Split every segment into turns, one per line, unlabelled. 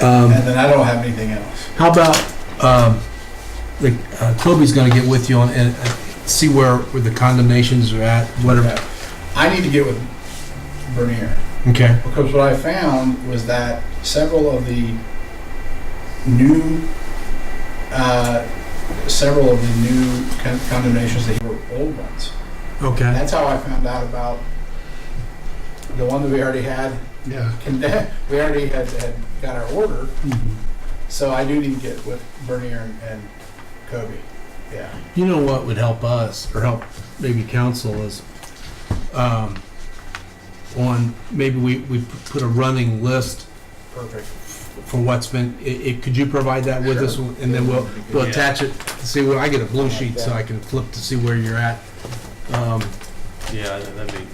Um,
And then I don't have anything else.
How about, um, like, uh, Toby's gonna get with you on, and uh, see where, where the condemnations are at, whatever.
I need to get with Bernier.
Okay,
Because what I found was that several of the new, uh, several of the new con- condemnations that were old ones. And
okay.
that's how I found out about the one that we already had
Yeah.
condemned. We already had, had got our order,
Mm-hmm.
so I do need to get with Bernier and, and Kobe. Yeah.
You know what would help us, or help maybe council is, um, on, maybe we, we put a running list
Perfect.
for what's been, i it, could you provide that with us?
Sure.
And then we'll, we'll
Yeah.
attach it, see, where I get a blue sheet so I can flip to see where you're at. Um,
Yeah, and that'd be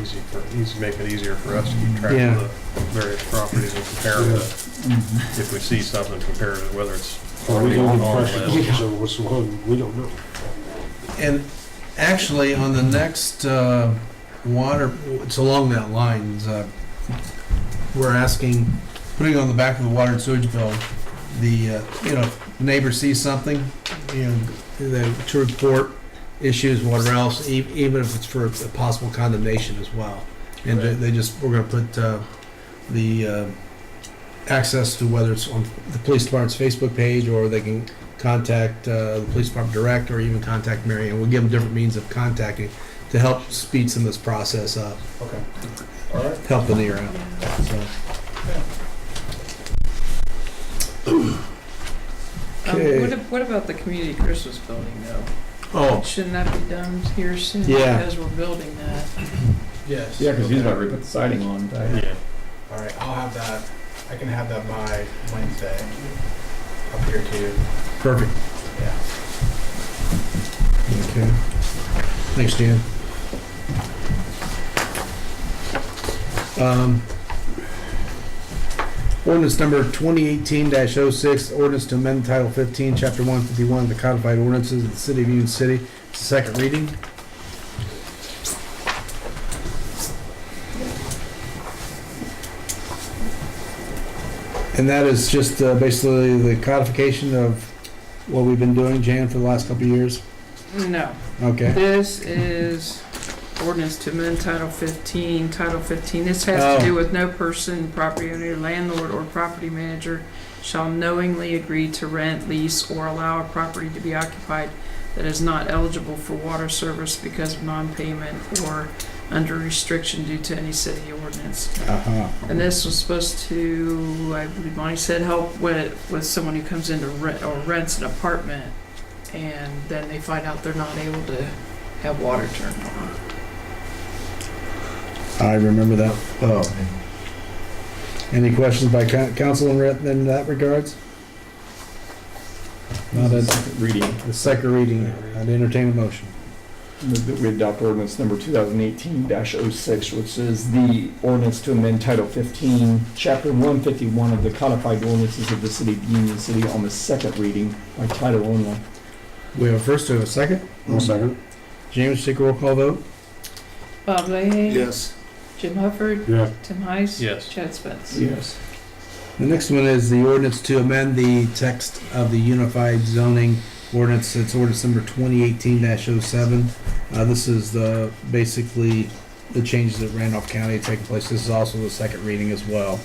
easy for, easy, make it easier for us to keep track
Yeah.
of the various properties and compare them. If we see something, compare it, whether it's
Well, we don't
on
have
our
questions,
list.
so what's the one, we don't know.
And actually, on the next uh, water, it's along that line, uh, we're asking, putting on the back of the water and sewage bill, the, uh, you know, if neighbor sees something, you know, the- to report issues, whatever else, e- even if it's for a possible condemnation as well. And they- they just, we're gonna put uh, the uh, access to whether it's on the police department's Facebook page, or they can contact uh, the police department direct or even contact Mary Ann. We'll give them different means of contacting to help speed some of this process up,
Okay. All right.
help the near out. So.
Um,
Okay.
What ab- what about the community Christmas building, though?
Oh,
Shouldn't that be done here soon?
Yeah.
Because we're building that.
Yes.
Yeah, because he's
Okay.
about to put the siding on, right?
Yeah,
All right, I'll have that, I can have that by Wednesday, up here to you,
perfect.
yeah.
Okay. Thanks, Dan. Um, Ordinance number 2018-06, ordinance to amend Title 15, Chapter 151 of the codified ordinances of the city of Union City. It's the second reading. And that is just uh, basically the codification of what we've been doing, Jan, for the last couple of years.
No,
Okay.
this is ordinance to amend Title 15, Title 15. This has
Oh.
to do with no person, property owner, landlord, or property manager shall knowingly agree to rent, lease, or allow a property to be occupied that is not eligible for water service because of non-payment or under restriction due to any city ordinance.
Uh-huh.
And this was supposed to, I believe Bonnie said, help with, with someone who comes in to rent, or rents an apartment, and then they find out they're not able to have water turned on.
I remember that. Oh. Any questions by coun- council in re- in that regards? Not
Not a
at
second reading.
the second reading. I'd entertain a motion.
Move that We adopt ordinance number 2018-06, which is the ordinance to amend Title 15, Chapter 151 of the codified ordinances of the city of Union City on the second reading by title only.
We have a first, we have a second.
second.
James, take a roll call vote.
Bob Leahy?
Yes.
Jim Hufford?
Yeah.
Tim Heiss?
yes,
Chad Spence?
Yes.
The next one is the ordinance to amend the text of the unified zoning ordinance. It's ordinance number 2018-07. Uh, This is the, basically, the changes that Randolph County have taken place. This is also the second reading as well.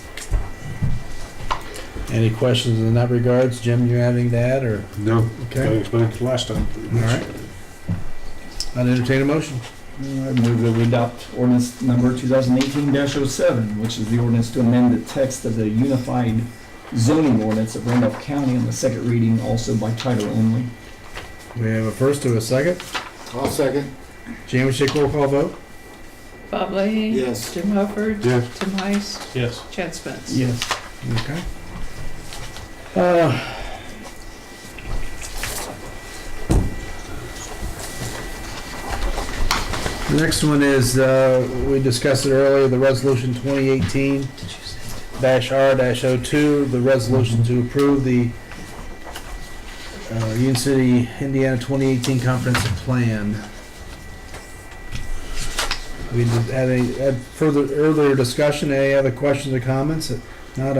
Any questions in that regards? Jim, you have anything to add, or?
No, I
Okay.
explained it last time. pretty much.
All right. I'd entertain a motion.
I move that we adopt ordinance number 2018-07, which is the ordinance to amend the text of the unified zoning ordinance of Randolph County on the second reading, also by title only.
We have a first or a second.
I'll second.
James, take roll call vote.
Bob Leahy?
Yes.
Jim Hufford?
Yeah.
Tim Heiss?
yes.
Chad Spence?
Yes.
Okay. Uh, The next one is, uh, we discussed it earlier, the resolution 2018 dash R dash O two, the resolution to approve the uh, Union City, Indiana 2018 comprehensive plan. We did- had a, had further, earlier discussion, any other questions or comments? If Not,